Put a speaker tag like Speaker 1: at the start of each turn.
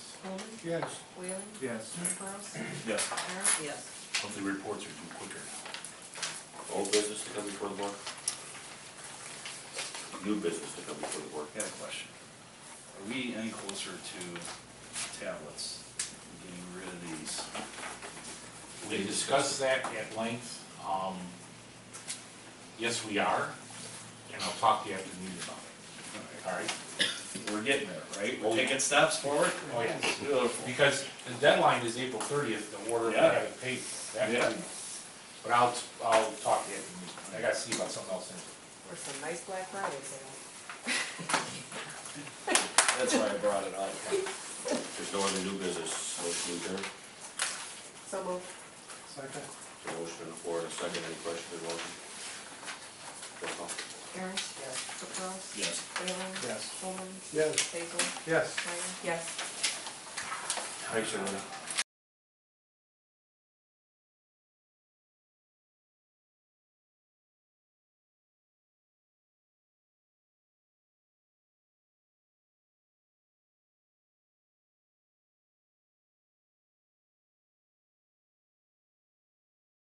Speaker 1: Coleman?
Speaker 2: Yes.
Speaker 1: Whalen?
Speaker 2: Yes.
Speaker 1: Klaus?
Speaker 3: Yes.
Speaker 1: Aaron? Yes.
Speaker 3: Monthly reports are due quicker now.
Speaker 4: Old business to come before the board? New business to come before the board?
Speaker 3: I got a question. Are we any closer to tablets, getting rid of these?
Speaker 5: We discussed that at length. Um, Yes, we are, and I'll talk to you after the meeting about it, all right?
Speaker 3: We're getting there, right?
Speaker 5: Oh,
Speaker 3: We're
Speaker 5: yeah.
Speaker 3: taking steps forward?
Speaker 5: Oh, yes.
Speaker 3: Beautiful.
Speaker 5: Because the deadline is April thirtieth, the order
Speaker 3: Yeah.
Speaker 5: that I paid. that-
Speaker 3: Yeah.
Speaker 5: But I'll, I'll talk to you after the meeting. I gotta see about something else. in-
Speaker 1: Or some nice Black Friday sale.
Speaker 3: That's why I brought it up.
Speaker 4: There's no other new business, motion to adjourn.
Speaker 1: So moved.
Speaker 2: Second.
Speaker 4: There's a motion on the floor, and a second, any questions or motion? Roll call.
Speaker 1: Aaron? Yes. Klaus?
Speaker 3: Yes.
Speaker 1: Whalen?
Speaker 2: Yes.
Speaker 1: Coleman?
Speaker 2: Yes.
Speaker 1: Basil?
Speaker 2: Yes.
Speaker 1: Meyer? Yes.
Speaker 4: Thanks, everyone.